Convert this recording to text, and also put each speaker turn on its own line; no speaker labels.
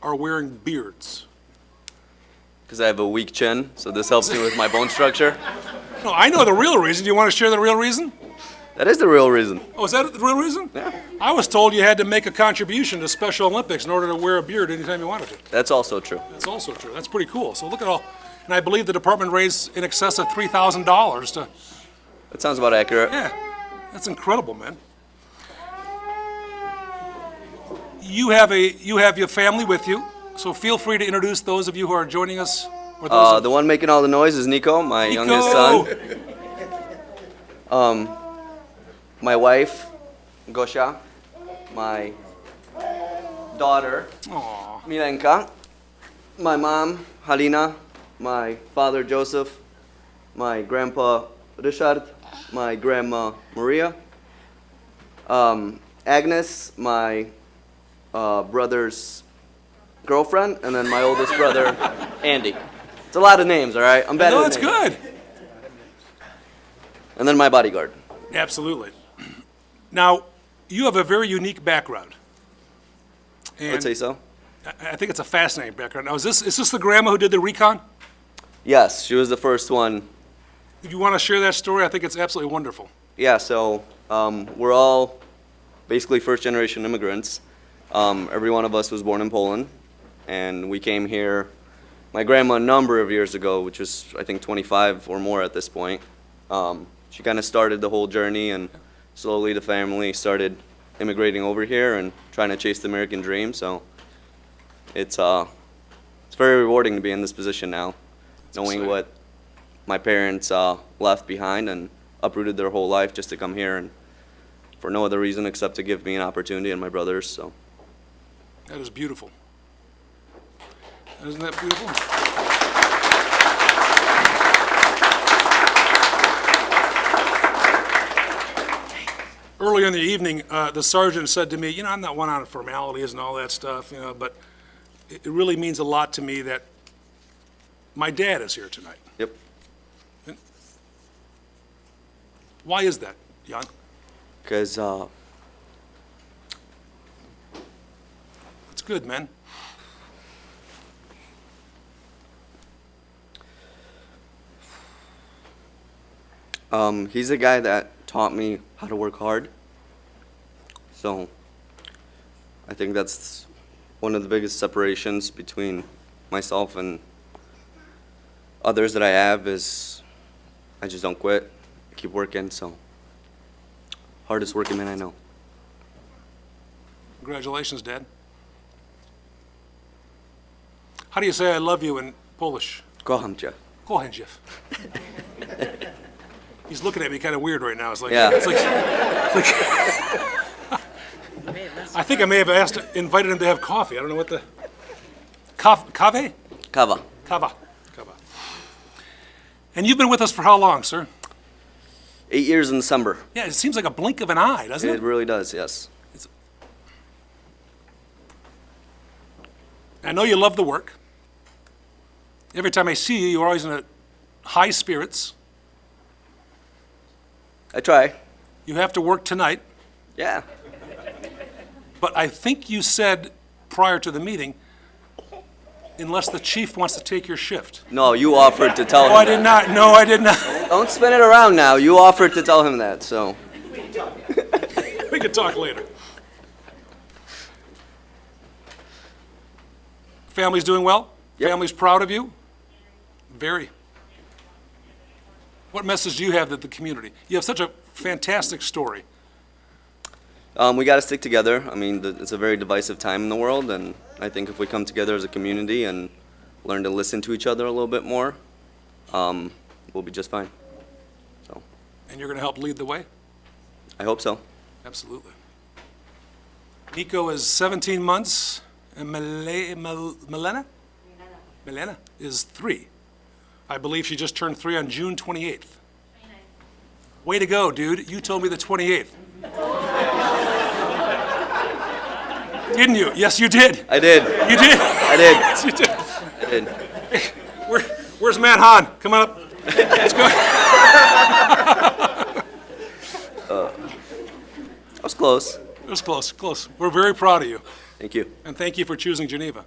are wearing beards.
because I have a weak chin, so this helps me with my bone structure.
No, I know the real reason. Do you want to share the real reason?
That is the real reason.
Oh, is that the real reason?
Yeah.
I was told you had to make a contribution to Special Olympics in order to wear a beard anytime you wanted to.
That's also true.
That's also true. That's pretty cool. So look at all, and I believe the department raised in excess of three thousand dollars to.
That sounds about accurate.
Yeah, that's incredible, man. You have a you have your family with you, so feel free to introduce those of you who are joining us. Or those
Uh,
of-
the one making all the noise is Nico, my youngest
Nico!
son. My wife, Gosha. My daughter,
Aw,
Milenka. My mom, Halina. My father, Joseph. My grandpa, Richard. My grandma, Maria. Um, Agnes, my uh, brother's girlfriend, and then my oldest brother, Andy. It's a lot of names, all right? I'm bad
no,
at
that's
names.
good.
And then my bodyguard.
Absolutely. Now, you have a very unique background.
I would
And
say so.
I I think it's a fascinating background. Now, is this is this the grandma who did the recon?
Yes, she was the first one
If you want to share that story, I think it's absolutely wonderful.
Yeah, so um, we're all basically first generation immigrants. Um, every one of us was born in Poland, and we came here, my grandma, a number of years ago, which was, I think, 25 or more at this point. Um, she kind of started the whole journey, and slowly the family started immigrating over here and trying to chase the American dream. So it's, uh, it's very rewarding to be in this position now, knowing
exciting.
what my parents uh, left behind and uprooted their whole life just to come here and for no other reason except to give me an opportunity and my brothers. So
That is beautiful. Isn't that beautiful? Earlier in the evening, uh, the sergeant said to me, you know, I'm not one on formalities and all that stuff, you know, but it it really means a lot to me that my dad is here tonight.
yep,
Why is that, Jan?
because uh,
It's good, man.
um, he's the guy that taught me how to work hard. So I think that's one of the biggest separations between myself and others that I have is I just don't quit. I keep working. So hardest working man I know.
Congratulations, Dad. How do you say I love you in Polish?
Kocham cię.
Go ahead, Jeff. He's looking at me kind of weird right now. It's like,
Yeah.
it's like, it's like- I think I may have asked, invited him to have coffee. I don't know what the, Cof- cave?
Kawa.
Cava. Cava. And you've been with us for how long, sir?
Eight years in December.
Yeah, it seems like a blink of an eye, doesn't
It
it?
really does, yes.
I know you love the work. Every time I see you, you're always in a high spirits.
I try.
You have to work tonight.
Yeah.
But I think you said prior to the meeting, unless the chief wants to take your shift.
No, you offered to tell him.
Oh, I did not, no, I did not.
That. Don't spin it around now. You offered to tell him that, so
We can talk later. Family's doing well?
Yep.
Family's proud of you? Very. What message do you have to the community? You have such a fantastic story.
um, we got to stick together. I mean, th- it's a very divisive time in the world, and I think if we come together as a community and learn to listen to each other a little bit more, um, we'll be just fine. So
And you're going to help lead the way?
I hope so.
Absolutely. Nico is 17 months, and Mile- Mil- Milena? Milena is three. I believe she just turned three on June 28th. Way to go, dude. You told me the 28th. Didn't you? Yes, you did.
I did.
You did.
I did.
Yes, you did.
I did.
Where, where's Matt Hahn? Come on up. Let's go.
I was close.
It was close, close. We're very proud of you,
Thank you.
and thank you for choosing Geneva.